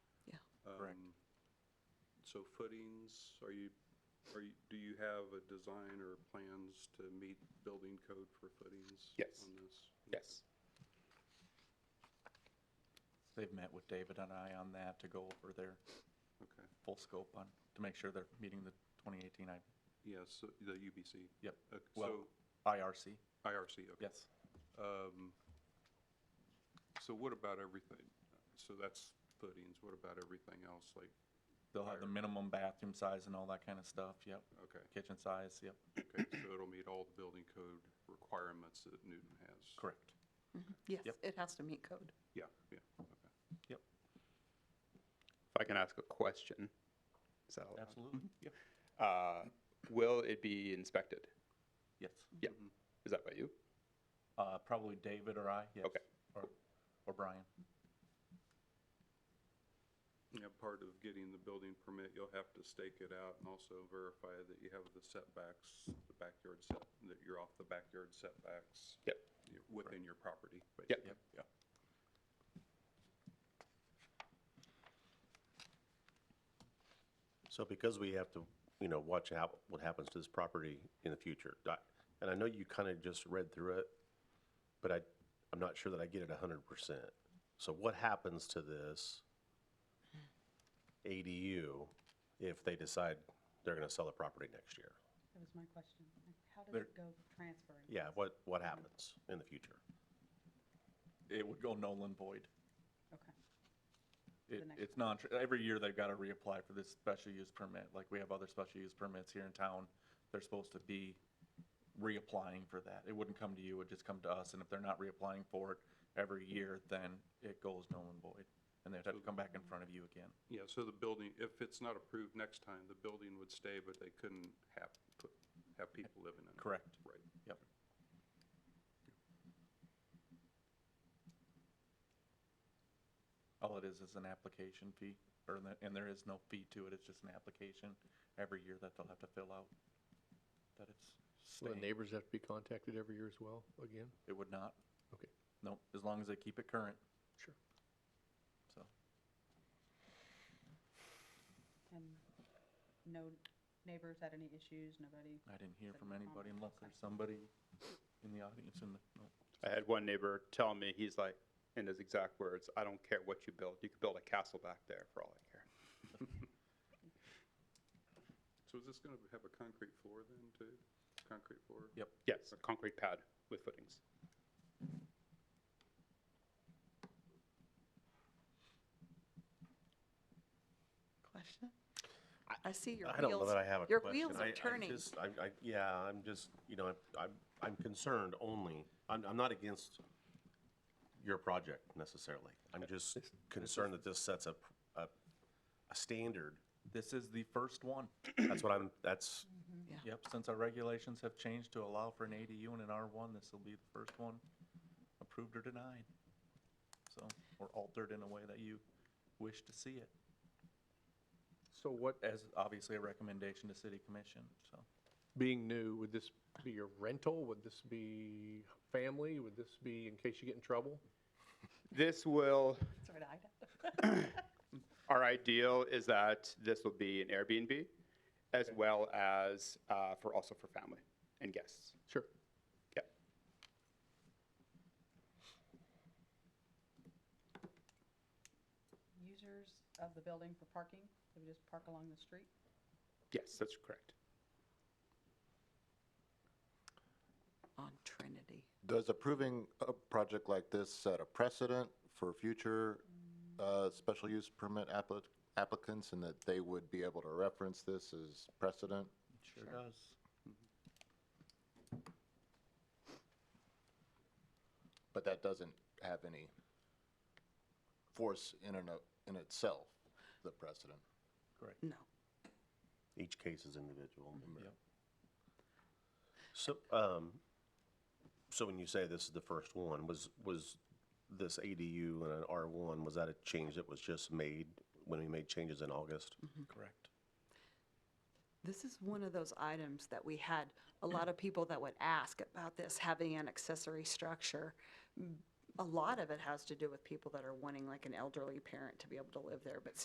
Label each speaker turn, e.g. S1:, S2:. S1: Um, So footings, are you, are you, do you have a design or plans to meet building code for footings?
S2: Yes.
S1: On this?
S2: Yes.
S3: They've met with David and I on that to go over their
S1: Okay,
S3: full scope on, to make sure they're meeting the 2018, I,
S1: yes, the UBC,
S3: yep,
S1: Okay,
S3: well,
S1: so-
S3: IRC,
S1: IRC, okay. Um,
S3: yes.
S1: So what about everything? So that's footings, what about everything else, like,
S3: They'll have the minimum bathroom size and all that kind of stuff, yep.
S1: Okay.
S3: Kitchen size, yep,
S1: okay, so it'll meet all the building code requirements that Newton has?
S3: correct,
S4: Mm-hmm. Yes,
S3: Yep.
S4: it has to meet code.
S1: Yeah, yeah, okay.
S3: yep,
S2: If I can ask a question, is that allowed?
S3: absolutely, yep,
S2: Uh, will it be inspected?
S3: yes.
S2: Yeah.
S1: Mm-hmm.
S2: Is that by you?
S3: Uh, Probably David or I, yes.
S2: Okay.
S3: Or or Brian,
S1: Yeah, part of getting the building permit, you'll have to stake it out and also verify that you have the setbacks, the backyard set, that you're off the backyard setbacks.
S2: Yep.
S1: you- Within your property.
S2: Yep.
S1: basically. Yeah.
S5: So because we have to, you know, watch how, what happens to this property in the future, Doc, and I know you kind of just read through it, but I, I'm not sure that I get it hundred percent. So what happens to this ADU if they decide they're gonna sell the property next year?
S6: That was my question. How does
S3: There-
S6: it go transferring?
S5: Yeah, what, what happens in the future?
S3: it would go null and void.
S6: Okay.
S3: It,
S6: The next
S3: it's non, every year they've got to reapply for this special use permit, like we have other special use permits here in town. They're supposed to be reapplying for that. It wouldn't come to you, it would just come to us, and if they're not reapplying for it every year, then it goes null and void. And they'd have to come back in front of you again.
S1: Yeah, so the building, if it's not approved next time, the building would stay, but they couldn't have, put- have people living in it.
S3: Correct.
S1: Right.
S3: Yep. All it is is an application fee, or, the- and there is no fee to it, it's just an application every year that they'll have to fill out, that it's
S7: Will the
S3: staying.
S7: neighbors have to be contacted every year as well, again?
S3: It would not,
S7: Okay,
S3: no, as long as they keep it current,
S7: sure.
S3: so.
S6: And no neighbors had any issues, nobody?
S3: I didn't hear
S6: said
S3: from anybody
S6: comment?
S3: unless there's somebody in the audience in the, no.
S2: I had one neighbor tell me, he's like, in his exact words, I don't care what you build. You could build a castle back there for all I care.
S1: So is this going to have a concrete floor then, too? Concrete floor?
S3: Yep,
S2: Yes, a concrete pad with footings.
S4: Question? I see your wheels.
S5: I don't know that I have a
S4: Your
S5: question.
S4: wheels
S5: I- I
S4: are turning.
S5: just- I, I, yeah, I'm just, you know, I'm, I'm concerned only, I'm, I'm not against your project necessarily. I'm just concerned that this sets a, a, a standard.
S3: this is the first one.
S5: That's what I'm, that's,
S6: Mm-hmm.
S4: Yeah.
S3: Yep, since our regulations have changed to allow for an ADU and an R1, this will be the first one approved or denied. So, or altered in a way that you wish to see it,
S7: So what,
S3: as obviously a recommendation to city commission, so.
S7: being new, would this be a rental? Would this be family? Would this be in case you get in trouble?
S2: This will,
S6: Sorry, Ida.
S2: our ideal is that this will be an Airbnb as well as uh, for also for family and guests.
S7: Sure.
S2: Yeah.
S6: Users of the building for parking, they would just park along the street?
S2: Yes, that's correct.
S4: On Trinity.
S8: Does approving a project like this set a precedent for future uh, special use permit appli- applicants and that they would be able to reference this as precedent?
S3: Sure does.
S8: But that doesn't have any force in and of, in itself, the precedent.
S3: Correct.
S4: No.
S5: each case is individual.
S3: Yep.
S5: So, um, so when you say this is the first one, was, was this ADU and an R1, was that a change that was just made when we made changes in August?
S3: Correct.
S4: This is one of those items that we had a lot of people that would ask about this, having an accessory structure. Mm, A lot of it has to do with people that are wanting like an elderly parent to be able to live there, but